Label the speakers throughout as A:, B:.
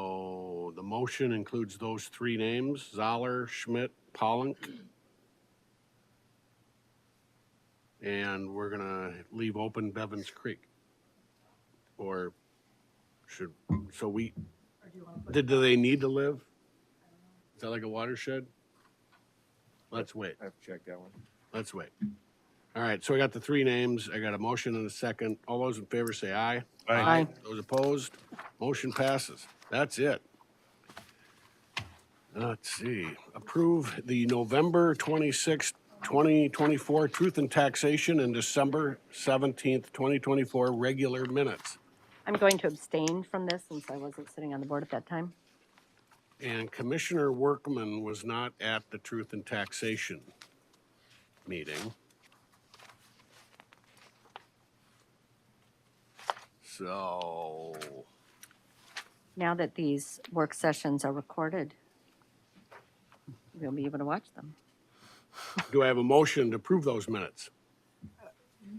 A: So the motion includes those three names, Zoller, Schmidt, Polink. And we're gonna leave open Bevins Creek. Or should, so we, did, do they need to live? Is that like a watershed? Let's wait.
B: I have to check that one.
A: Let's wait. All right, so I got the three names. I got a motion and a second. All those in favor say aye.
C: Aye. Aye.
A: Those opposed, motion passes. That's it. Let's see, approve the November twenty-sixth, twenty twenty-four Truth and Taxation and December seventeenth, twenty twenty-four Regular Minutes.
C: I'm going to abstain from this since I wasn't sitting on the board at that time.
A: And Commissioner Workman was not at the Truth and Taxation meeting. So,
C: Now that these work sessions are recorded, we'll be able to watch them.
A: do I have a motion to approve those minutes?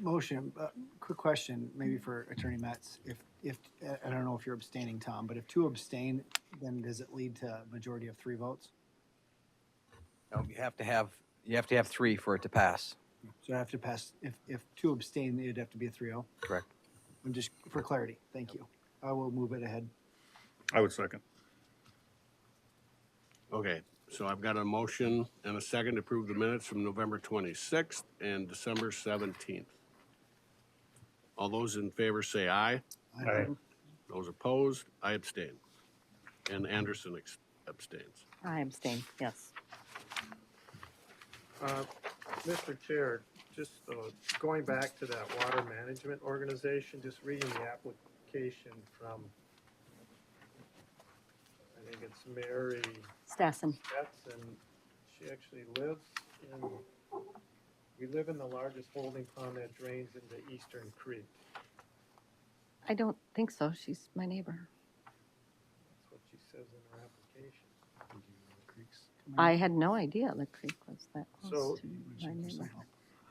D: Motion, uh, quick question, maybe for Attorney Metz. If, if, I- I don't know if you're abstaining, Tom, but if two abstain, then does it lead to a majority of three votes?
E: No, you have to have, you have to have three for it to pass.
D: So I have to pass, if, if two abstain, it'd have to be a 3-0?
E: Correct.
D: I'm just, for clarity, thank you. I will move it ahead.
B: I would second.
A: Okay, so I've got a motion and a second to approve the minutes from November 26th and December 17th. All those in favor say aye.
D: I-
A: Those opposed, I abstain. And Anderson ex- abstains.
C: I abstain, yes.
F: Uh, Mr. Chair, just uh, going back to that water management organization, just reading the application from, I think it's Mary
C: Stassen,
F: Betts, and she actually lives in, we live in the largest holding pond that drains into Eastern Creek.
C: I don't think so. She's my neighbor.
F: That's what she says in her application.
C: I had no idea Lick Creek was that close
F: So-
C: to my neighbor.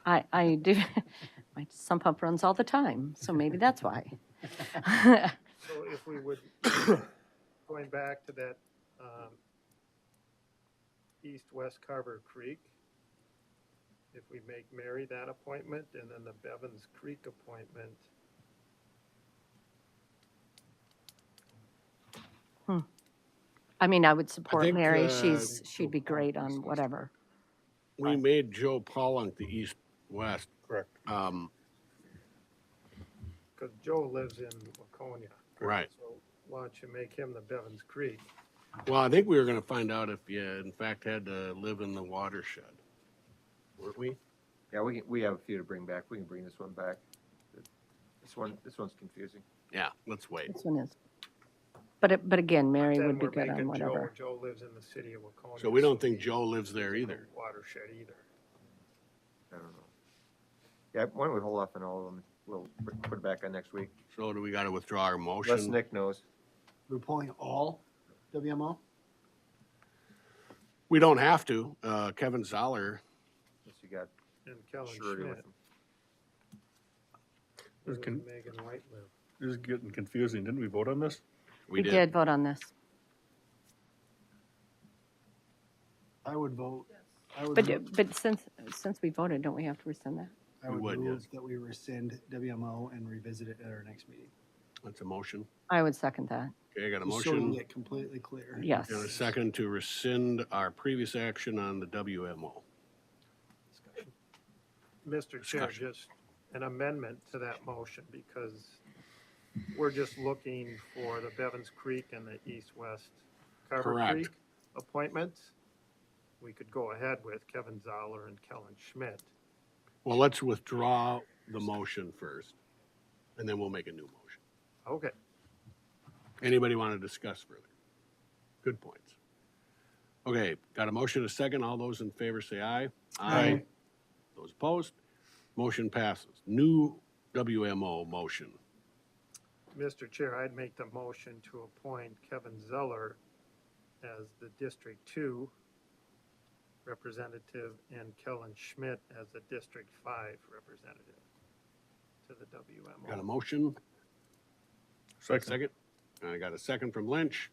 C: I, I do, my sump pump runs all the time, so maybe that's why.
F: So if we would, going back to that, um, east-west Carver Creek, if we make Mary that appointment and then the Bevins Creek appointment.
C: I mean, I would support
A: think,
C: Mary.
A: uh,
C: She's, she'd be great on whatever.
A: We made Joe Pollock the east-west.
B: Correct.
A: Um,
F: Cause Joe lives in Waconia.
A: Right.
F: So why don't you make him the Bevins Creek?
A: Well, I think we were gonna find out if you in fact had to live in the watershed. Weren't we?
E: Yeah, we, we have a few to bring back. We can bring this one back. This one, this one's confusing.
A: Yeah, let's wait.
C: This one is. But, it- but again, Mary
F: Then
C: would be
F: we're
C: good on
F: making Joe-
C: whatever.
F: Joe lives in the city of Waconia.
A: So we don't think Joe lives there
F: he's in the
A: either.
F: Watershed either.
E: I don't know. Yeah, why don't we hold off on all of them? We'll put it back on next week.
A: So do we gotta withdraw our
E: Unless
A: motion?
E: Nick knows.
D: We're pulling all WMO?
A: We don't have to. Uh, Kevin Zoller,
E: Unless you got
F: And Kellen
E: surety with
F: Schmidt,
E: him.
F: where
B: There's con-
F: does Megan White live?
B: This is getting confusing. Didn't we vote on this?
A: we
C: did
A: did.
C: vote on this.
D: I would vote. I would
C: But,
D: move-
C: but since, since we voted, don't we have to rescind that?
D: I
A: We would,
D: would
A: yes.
D: move that we rescind WMO and revisit it at our next meeting.
A: That's a motion.
C: I would second that,
A: Okay, I got a
D: Just so we can
A: motion
D: get completely clear.
C: yes.
A: and a second to rescind our previous action on the WMO.
F: Mr. Chair,
A: Discussion.
F: just an amendment to that motion because we're just looking for the Bevins Creek and the east-west Carver
A: Correct.
F: Creek appointments. We could go ahead with Kevin Zoller and Kellen Schmidt.
A: Well, let's withdraw the motion first and then we'll make a new motion.
F: Okay,
A: Anybody want to discuss further? Good points. Okay, got a motion, a second. All those in favor say aye.
D: Aye.
A: Those opposed? Motion passes. New WMO motion.
F: Mr. Chair, I'd make the motion to appoint Kevin Zeller as the District Two representative and Kellen Schmidt as the District Five representative to the WMO.
A: Got a motion?
B: Second.
A: Second? And I got a second from Lynch.